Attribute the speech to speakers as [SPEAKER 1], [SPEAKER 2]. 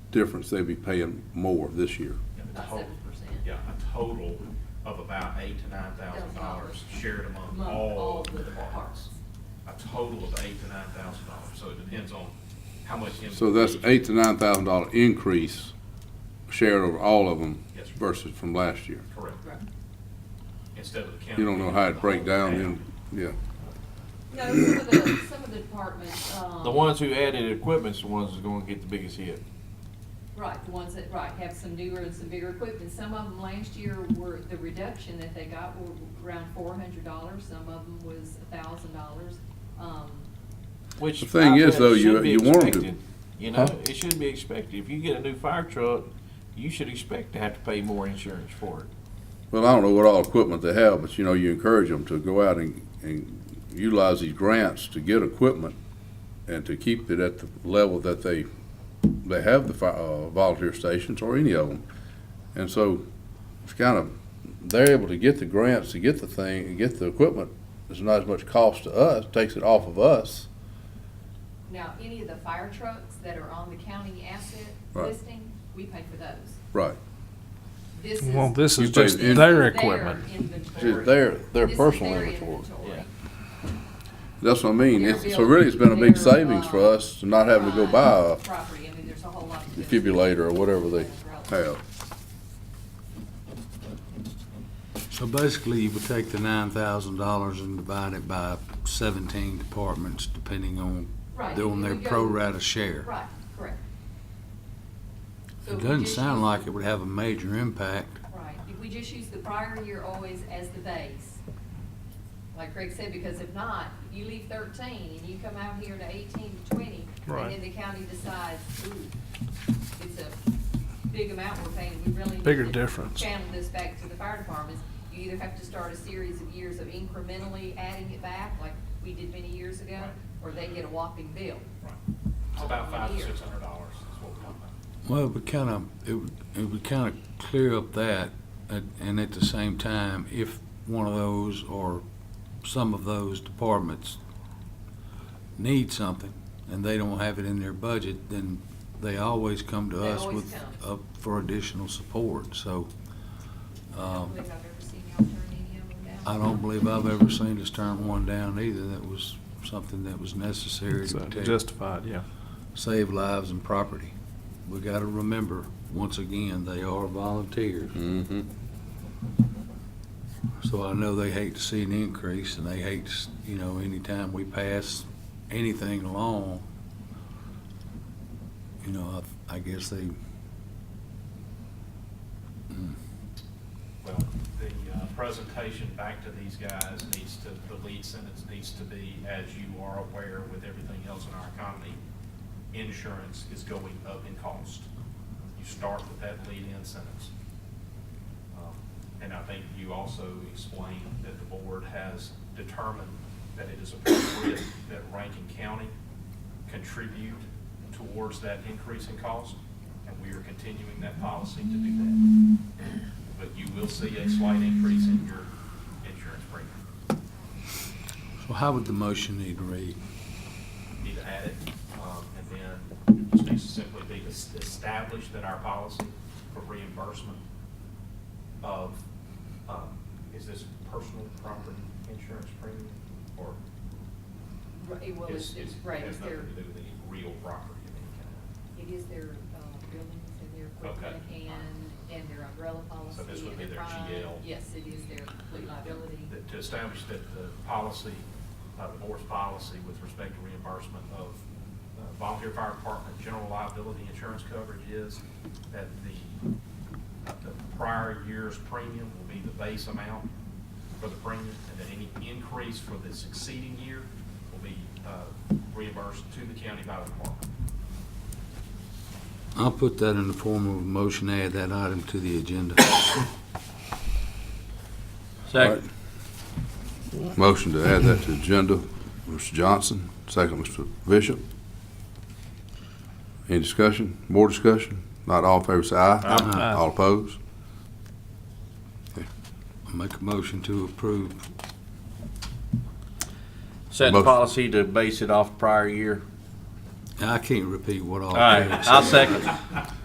[SPEAKER 1] difference, they'd be paying more this year.
[SPEAKER 2] About
[SPEAKER 3] Total-
[SPEAKER 2] 7%.
[SPEAKER 3] Yeah, a total of about eight to nine thousand dollars shared among
[SPEAKER 2] Among all
[SPEAKER 3] all,
[SPEAKER 2] the departments.
[SPEAKER 3] a total of eight to nine thousand dollars, so it depends on how much.
[SPEAKER 1] So that's
[SPEAKER 3] individual-
[SPEAKER 1] eight to nine thousand dollar increase shared over all of them
[SPEAKER 3] Yes, sir.
[SPEAKER 1] versus from last year.
[SPEAKER 3] Correct,
[SPEAKER 2] Right.
[SPEAKER 3] instead of the county.
[SPEAKER 1] You don't know how it break down then, yeah.
[SPEAKER 2] No, some of the, some of the departments, um.
[SPEAKER 4] The ones who added equipment's the ones that's gonna get the biggest hit.
[SPEAKER 2] Right, the ones that, right, have some newer and some bigger equipment. Some of them last year were, the reduction that they got were around four hundred dollars. Some of them was a thousand dollars. Um,
[SPEAKER 4] Which
[SPEAKER 1] The thing
[SPEAKER 4] I
[SPEAKER 1] is,
[SPEAKER 4] bet
[SPEAKER 1] though, you-
[SPEAKER 4] should be
[SPEAKER 1] you want 'em to-
[SPEAKER 4] expected. You know,
[SPEAKER 1] Huh?
[SPEAKER 4] it should be expected. If you get a new fire truck, you should expect to have to pay more insurance for it.
[SPEAKER 1] Well, I don't know what all equipment they have, but you know, you encourage them to go out and, and utilize these grants to get equipment and to keep it at the level that they, they have the fi- uh, volunteer stations or any of them. And so it's kind of, they're able to get the grants to get the thing, and get the equipment. It's not as much cost to us, takes it off of us.
[SPEAKER 2] now, any of the fire trucks that are on the county asset
[SPEAKER 1] Right.
[SPEAKER 2] listing, we pay for those.
[SPEAKER 1] Right.
[SPEAKER 2] This
[SPEAKER 5] Well,
[SPEAKER 2] is.
[SPEAKER 5] this
[SPEAKER 1] You
[SPEAKER 5] is just
[SPEAKER 1] pay the-
[SPEAKER 5] their
[SPEAKER 2] this is
[SPEAKER 5] equipment.
[SPEAKER 2] inventory.
[SPEAKER 1] their- their
[SPEAKER 2] This is
[SPEAKER 1] personal
[SPEAKER 2] their
[SPEAKER 1] inventory.
[SPEAKER 2] inventory.
[SPEAKER 1] That's what I mean.
[SPEAKER 2] Their
[SPEAKER 1] It's- So
[SPEAKER 2] bill-
[SPEAKER 1] really, it's been a big
[SPEAKER 2] their,
[SPEAKER 1] savings for
[SPEAKER 2] uh,
[SPEAKER 1] us to not having to go
[SPEAKER 2] Right,
[SPEAKER 1] buy
[SPEAKER 2] Property, I mean, there's a whole lot.
[SPEAKER 1] a
[SPEAKER 2] to do.
[SPEAKER 1] defibrillator or whatever they have.
[SPEAKER 6] So basically, you would take the nine thousand dollars and divide it by seventeen departments, depending on,
[SPEAKER 2] Right,
[SPEAKER 6] they're on
[SPEAKER 2] we
[SPEAKER 6] their
[SPEAKER 2] go-
[SPEAKER 6] pro rata share.
[SPEAKER 2] Right, correct. So
[SPEAKER 6] It
[SPEAKER 2] if we
[SPEAKER 6] doesn't
[SPEAKER 2] just
[SPEAKER 6] sound
[SPEAKER 2] use-
[SPEAKER 6] like it would have a major impact.
[SPEAKER 2] Right, if we just use the prior year always as the base, like Craig said, because if not, you leave thirteen and you come out here to eighteen to twenty, and
[SPEAKER 5] Right.
[SPEAKER 2] then the county decides, ooh, it's a big amount we're paying, we really need
[SPEAKER 5] Bigger
[SPEAKER 2] to
[SPEAKER 5] difference.
[SPEAKER 2] Channel this back to the fire departments, you either have to start a series of years of incrementally adding it back, like we did many years ago,
[SPEAKER 3] Right.
[SPEAKER 2] or they get a whopping bill.
[SPEAKER 3] Right. It's about
[SPEAKER 2] all in a
[SPEAKER 3] five to
[SPEAKER 2] year.
[SPEAKER 3] six hundred dollars is what we're talking about.
[SPEAKER 6] Well, it would kind of, it would, it would kind of clear up that, and- and at the same time, if one of those or some of those departments need something and they don't have it in their budget, then they always come to
[SPEAKER 2] They
[SPEAKER 6] us
[SPEAKER 2] always
[SPEAKER 6] with, uh, for additional support, so,
[SPEAKER 2] I
[SPEAKER 6] um,
[SPEAKER 2] don't believe I've ever seen y'all turn any of them down.
[SPEAKER 6] I don't believe I've ever seen us turn one down either. That was something that was necessary to
[SPEAKER 5] So
[SPEAKER 6] protect,
[SPEAKER 5] Justified, yeah.
[SPEAKER 6] save lives and property. We gotta remember, once again, they are volunteers.
[SPEAKER 1] Mm-hmm.
[SPEAKER 6] So I know they hate to see an increase and they hate, to s- you know, anytime we pass anything along, you know, I, I guess they,
[SPEAKER 3] Well, the uh, presentation back to these guys needs to, the lead sentence needs to be, as you are aware with everything else in our economy, insurance is going up in cost. You start with that lead-in sentence. Um, And I think you also explained that the board has determined that it is appropriate that Rankin County contribute towards that increase in cost, and we are continuing that policy to do that but you will see a slight increase in your insurance premium.
[SPEAKER 6] so how would the motion need to read?
[SPEAKER 3] Need to add it, um, and then it just needs to simply be to s- establish that our policy for reimbursement of, um, is this personal property insurance premium? Or
[SPEAKER 2] Right, Well,
[SPEAKER 3] is,
[SPEAKER 2] it's,
[SPEAKER 3] is,
[SPEAKER 2] it's, right,
[SPEAKER 3] has
[SPEAKER 2] it's
[SPEAKER 3] nothing
[SPEAKER 2] their,
[SPEAKER 3] to do with any real property of any kind?
[SPEAKER 2] it is their uh, buildings and their equipment
[SPEAKER 3] Okay.
[SPEAKER 2] and, and their umbrella policy.
[SPEAKER 3] So this would
[SPEAKER 2] and
[SPEAKER 3] be their
[SPEAKER 2] crime.
[SPEAKER 3] GL.
[SPEAKER 2] Yes, it is their complete liability.
[SPEAKER 3] That- To establish that the policy, uh, the board's policy with respect to reimbursement of uh, volunteer fire department general liability insurance coverage is that the, uh, the prior year's premium will be the base amount for the premium, and that any increase for the succeeding year will be uh, reimbursed to the county by the department.
[SPEAKER 6] I'll put that in the form of a motion, add that item to the agenda.
[SPEAKER 1] Second. Motion to add that to agenda, Mr. Johnson, second, Mr. Bishop. Any discussion, more discussion? Not all in favor, say aye.
[SPEAKER 5] Aye.
[SPEAKER 1] All opposed?
[SPEAKER 6] Make a motion to approve
[SPEAKER 1] Motion.
[SPEAKER 4] Set the policy to base it off prior year.
[SPEAKER 6] I can't repeat what all.
[SPEAKER 4] All right,
[SPEAKER 6] David
[SPEAKER 4] I'll
[SPEAKER 6] said.
[SPEAKER 4] second.